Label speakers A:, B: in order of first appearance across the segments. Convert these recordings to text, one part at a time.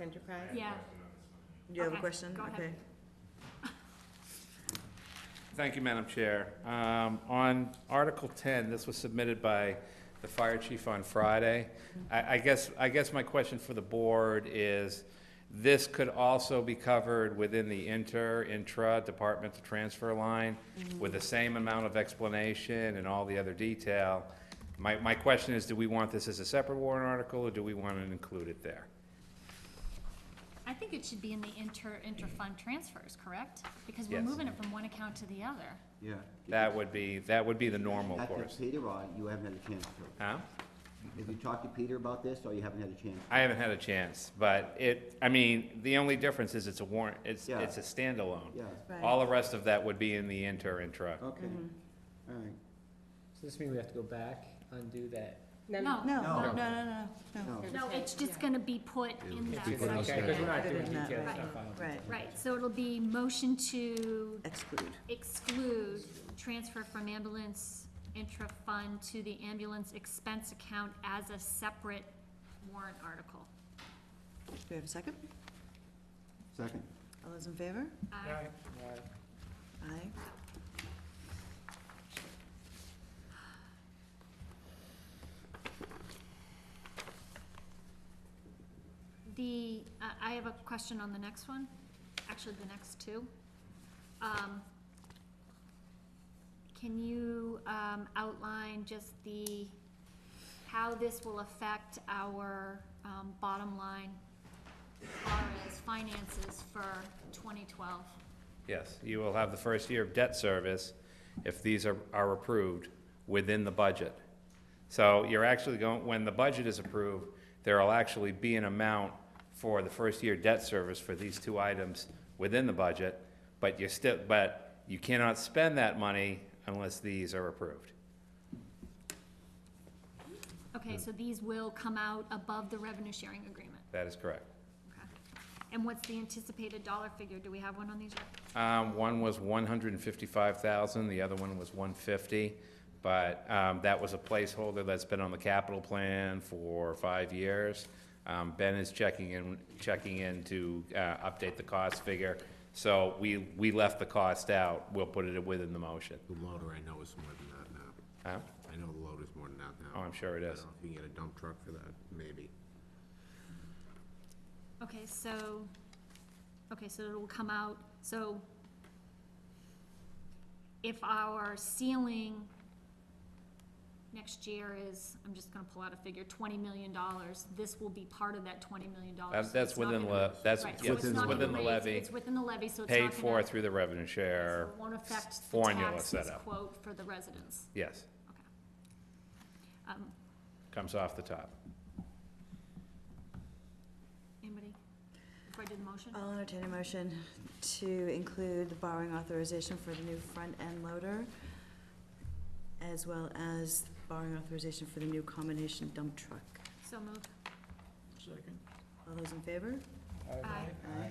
A: Enterprise?
B: Yeah.
C: Do you have a
B: Okay,
C: question?
B: go ahead.
C: Okay.
D: Thank you, Madam Chair. Um, On Article 10, this was submitted by the fire chief on Friday. I I guess, I guess my question for the board is, this could also be covered within the inter, intra departmental transfer line with the same amount of explanation and all the other detail. My, my question is, do we want this as a separate warrant article, or do we want to include it there?
B: I think it should be in the inter, inter-fund transfers, correct? Because we're
D: Yes.
B: moving it from one account to the other.
E: Yeah.
D: That would be, that would be the normal
E: Talk
D: course.
E: to Peter, or you haven't had a chance to?
D: Huh?
E: Have you talked to Peter about this, or you haven't had a chance?
D: I haven't had a chance, but it, I mean, the only difference is it's a warrant, it's,
E: Yeah.
D: it's a standalone.
E: Yeah, Oh.
C: Right.
D: All the rest of that would be in the inter intra.
E: okay, all right.
F: So this means we have to go back, undo that?
B: No,
C: No, no, no,
E: No.
C: no, no, no.
E: No.
B: No, it's just gonna be put in that section.
F: Okay, Because we're not
C: Put it
F: doing
C: in that
F: detailed
C: way.
F: stuff out.
C: Right,
B: Right, so it'll be motion to
C: exclude.
B: exclude transfer from ambulance intra-fund to the ambulance expense account as a separate warrant article.
C: Do we have a second?
E: Second,
C: All those in favor?
B: Uh,
C: Aye.
B: The, uh, I have a question on the next one, actually the next two. Um, Can you um, outline just the, how this will affect our um, bottom line as far as finances for 2012?
D: Yes, you will have the first year of debt service, if these are, are approved, within the budget. So you're actually going, when the budget is approved, there'll actually be an amount for the first year debt service for these two items within the budget, but you're still, but you cannot spend that money unless these are approved.
B: Okay, so these will come out above the revenue sharing agreement.
D: That is correct.
B: Okay. And what's the anticipated dollar figure? Do we have one on these yet?
D: Um, one was one hundred and fifty-five thousand, the other one was one fifty, but, um, that was a placeholder that's been on the capital plan for five years. Um, Ben is checking in, checking in to, uh, update the cost figure, so we, we left the cost out, we'll put it within the motion.
G: The loader I know is more than that now.
D: Huh?
G: I know the loader's more than that now.
D: Oh, I'm sure it
G: I don't
D: is.
G: know If you can get a dump truck for that, maybe.
B: Okay, so, okay, so it'll come out, so if our ceiling next year is, I'm just gonna pull out a figure, twenty million dollars, this will be part of that twenty million dollars.
D: That's, that's within the, that's,
B: Right, so
D: yes,
B: it's
D: it's
B: not gonna
D: within the
B: raise-
D: levy,
B: It's within the levy, so it's not gonna.
D: paid for through the revenue share,
B: so it Won't affect the
D: formula
B: taxes
D: setup.
B: quote for the residents,
D: yes,
B: okay. Um,
D: comes off the top.
B: anybody, before I do the motion?
C: I'll entertain a motion to include the borrowing authorization for the new front-end loader, as well as borrowing authorization for the new combination dump truck.
B: So moved,
F: Second.
C: All those in favor?
B: aye.
C: Aye.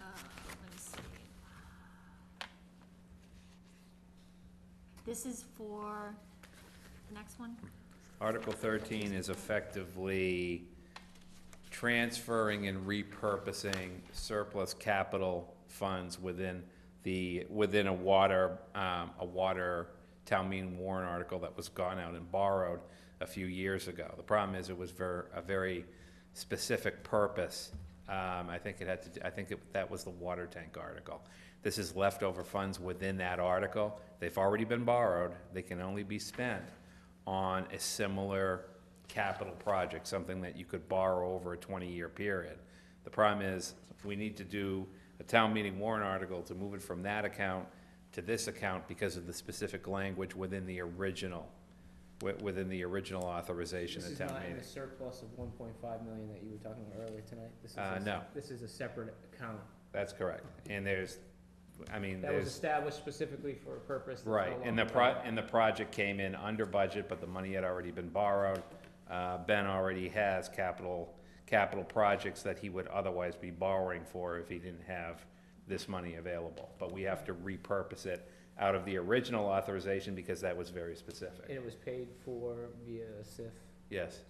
B: Uh, let me see. This is for the next one?
D: Article thirteen is effectively transferring and repurposing surplus capital funds within the, within a water, um, a water town meeting warrant article that was gone out and borrowed a few years ago. The problem is it was ver, a very specific purpose. Um, I think it had to, do- I think it, that was the water tank article. This is leftover funds within that article. They've already been borrowed. They can only be spent on a similar capital project, something that you could borrow over a twenty-year period. The problem is, we need to do a town meeting warrant article to move it from that account to this account because of the specific language within the original, wi- within the original authorization
F: This
D: at
F: is
D: town
F: not in
D: meeting.
F: the surplus of one point five million that you were talking about earlier tonight? This is a
D: Uh,
F: s-
D: no.
F: This is a separate account.
D: That's correct. And there's, I mean,
F: That was
D: there's,
F: established specifically for a purpose. that's no
D: right, and the
F: longer
D: pro,
F: valid.
D: and the project came in under budget, but the money had already been borrowed. Uh, Ben already has capital, capital projects that he would otherwise be borrowing for if he didn't have this money available. But we have to repurpose it out of the original authorization because that was very
F: And
D: specific.
F: it was paid for via SIF.
D: Yes,